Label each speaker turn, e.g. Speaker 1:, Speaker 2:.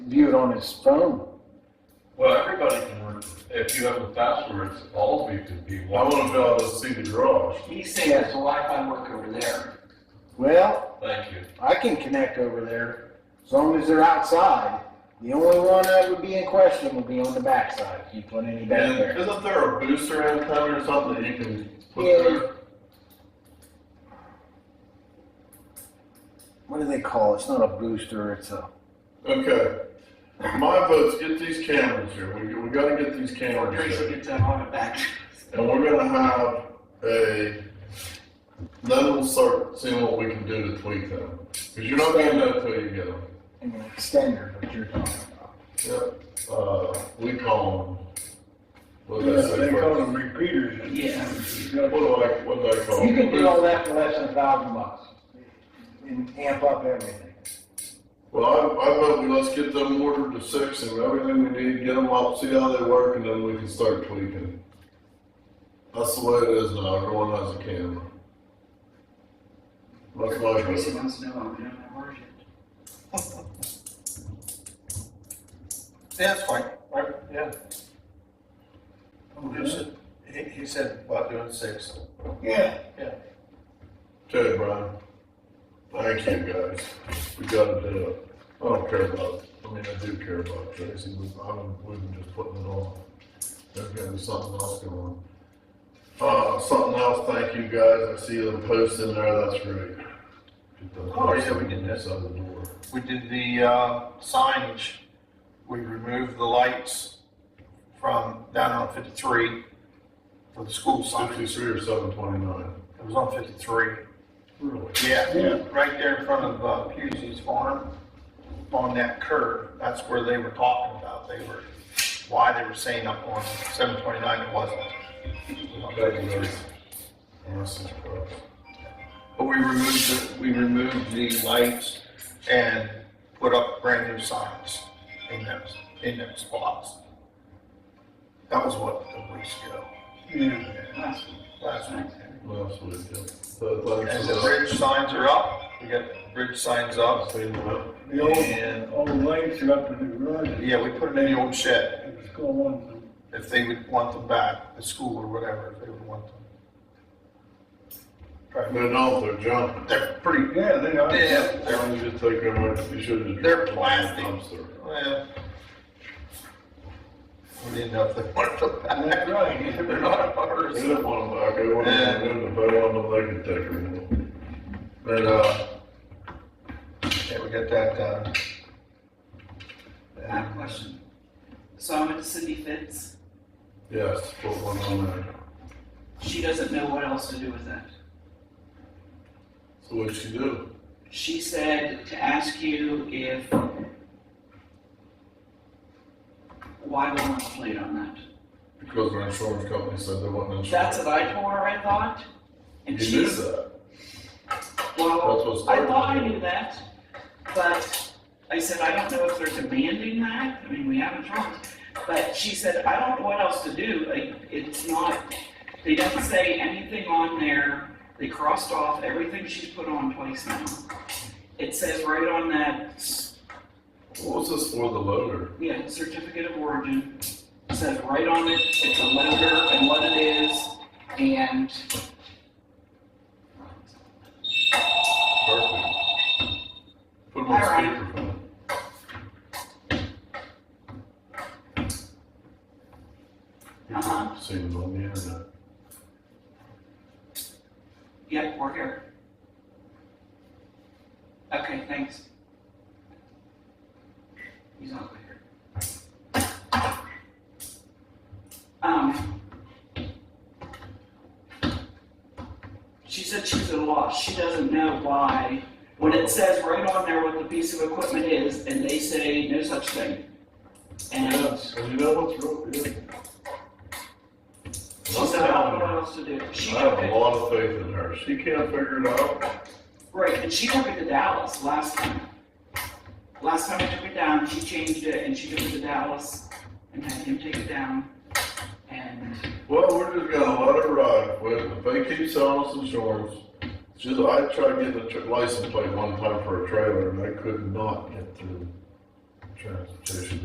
Speaker 1: view it on his phone.
Speaker 2: Well, everybody can work, if you have the passwords, all of you can be.
Speaker 3: I want to be able to see the drawers.
Speaker 4: He's saying there's a Wi-Fi work over there.
Speaker 1: Well,
Speaker 2: Thank you.
Speaker 1: I can connect over there as long as they're outside. The only one that would be in question would be on the backside if you put any back
Speaker 3: And
Speaker 1: there.
Speaker 3: isn't there a booster antenna or something that you can put
Speaker 1: Yeah.
Speaker 3: through?
Speaker 1: What do they call it? It's not a booster, it's a,
Speaker 3: Okay. My vote's get these cameras here. We, we gotta get these cameras
Speaker 4: Tracy
Speaker 3: here.
Speaker 4: gets that on the back.
Speaker 3: And we're gonna have a, then we'll start seeing what we can do to tweak them. Cause you're not gonna know until you get them.
Speaker 1: an extender, what you're talking about.
Speaker 3: Yep. Uh, we call them. What do they
Speaker 5: Yeah,
Speaker 3: say?
Speaker 5: they call them repeaters.
Speaker 4: Yeah.
Speaker 3: What do I, what do I call them?
Speaker 1: You can do all that for less than a thousand bucks and amp up everything.
Speaker 3: Well, I, I vote we let's get them ordered to six and everything we need, get them up, see how they work, and then we can start tweaking. That's the way it is now, everyone has a camera. That's my
Speaker 4: Tracy
Speaker 3: vote.
Speaker 4: wants to know why we don't have ours yet.
Speaker 6: Yeah, that's fine, right, yeah. Who is it? He, he said about doing six.
Speaker 5: Yeah.
Speaker 3: Okay, Brian. Thank you, guys. We gotta do it. I don't care about, I mean, I do care about Tracy, but I wouldn't, wouldn't just putting it on. There's gotta be something else going on. Uh, something else, thank you, guys. I see the post in there, that's great.
Speaker 6: Oh, yeah, we did that.
Speaker 3: Inside the door.
Speaker 6: We did the, uh, signage, we removed the lights from down on fifty-three for the school sign.
Speaker 3: Fifty-three or seven twenty-nine.
Speaker 6: It was on fifty-three.
Speaker 3: Really?
Speaker 6: Yeah,
Speaker 5: Yeah.
Speaker 6: right there in front of uh, Pusey's farm, on that curve, that's where they were talking about, they were, why they were saying up on seven twenty-nine it wasn't.
Speaker 3: Okay, you guys. Yes, it's close.
Speaker 6: But we removed, it- we removed the lights and put up brand new signs in those, in those spots. That was what, a week ago,
Speaker 5: Yeah.
Speaker 4: Last
Speaker 6: last week.
Speaker 4: night.
Speaker 3: Last week, yeah. So
Speaker 6: And
Speaker 3: thanks
Speaker 6: the
Speaker 3: for
Speaker 6: bridge signs are up, we got bridge signs
Speaker 3: that.
Speaker 6: up,
Speaker 3: Seen that.
Speaker 5: The old, old lights are up in the garage.
Speaker 6: yeah, we put them in the old shed.
Speaker 5: It was going,
Speaker 6: if they would want them back, the school or whatever, if they would want them.
Speaker 3: They're not, they're junk.
Speaker 6: They're pretty,
Speaker 5: yeah, they are.
Speaker 6: they're,
Speaker 3: Why
Speaker 6: they're,
Speaker 3: don't you just take them out, you should have.
Speaker 6: They're plastic.
Speaker 3: Dumpster.
Speaker 6: well. We didn't know if they wanted them back.
Speaker 5: That's right.
Speaker 6: They're not
Speaker 3: They
Speaker 6: ours.
Speaker 3: didn't want them back, they wanted them, removed. if they wanted them, they could take them. But, uh,
Speaker 6: Yeah, we got that uh, done.
Speaker 4: I have a question. So I'm at Cindy Fitz.
Speaker 3: yes, put one on there.
Speaker 4: She doesn't know what else to do with that.
Speaker 3: So what'd she do?
Speaker 4: She said to ask you if why we want to plate on that.
Speaker 3: Because our insurance company said they wasn't insured.
Speaker 4: That's what I told her, I thought.
Speaker 3: You
Speaker 4: And
Speaker 3: knew
Speaker 4: she's,
Speaker 3: that. That's what
Speaker 4: well, I
Speaker 3: started
Speaker 4: thought I
Speaker 3: it.
Speaker 4: knew that, but I said, I don't know if they're demanding that. I mean, we haven't tried. But she said, I don't know what else to do. Like, it's not, they don't say anything on there. They crossed off everything she's put on twice now. It says right on that
Speaker 3: What was this for, the loader?
Speaker 4: Yeah, certificate of origin, It says right on it, it's a letter and what it is, and
Speaker 3: Perfect. Put them on
Speaker 4: Alright.
Speaker 3: speakerphone.
Speaker 4: Uh-huh.
Speaker 3: Seen it on the internet.
Speaker 4: yep, we're here. Okay, thanks. He's not here. Um. She said she's at a loss, she doesn't know why, when it says right on there what the piece of equipment is, and they say no such thing. And
Speaker 3: Yes, and you know what's real, yeah.
Speaker 4: She said, I don't know what else to do. She
Speaker 3: I have
Speaker 4: took
Speaker 3: a
Speaker 4: it,
Speaker 3: lot of faith in her. She can't figure it out.
Speaker 4: right, and she took it to Dallas last time. Last time I took it down, she changed it and she took it to Dallas and had him take it down. And
Speaker 3: Well, we're just gonna let her ride. Well, If they keep selling us insurance, just, I tried getting a tr- license plate one time for a trailer and I could not get through. transportation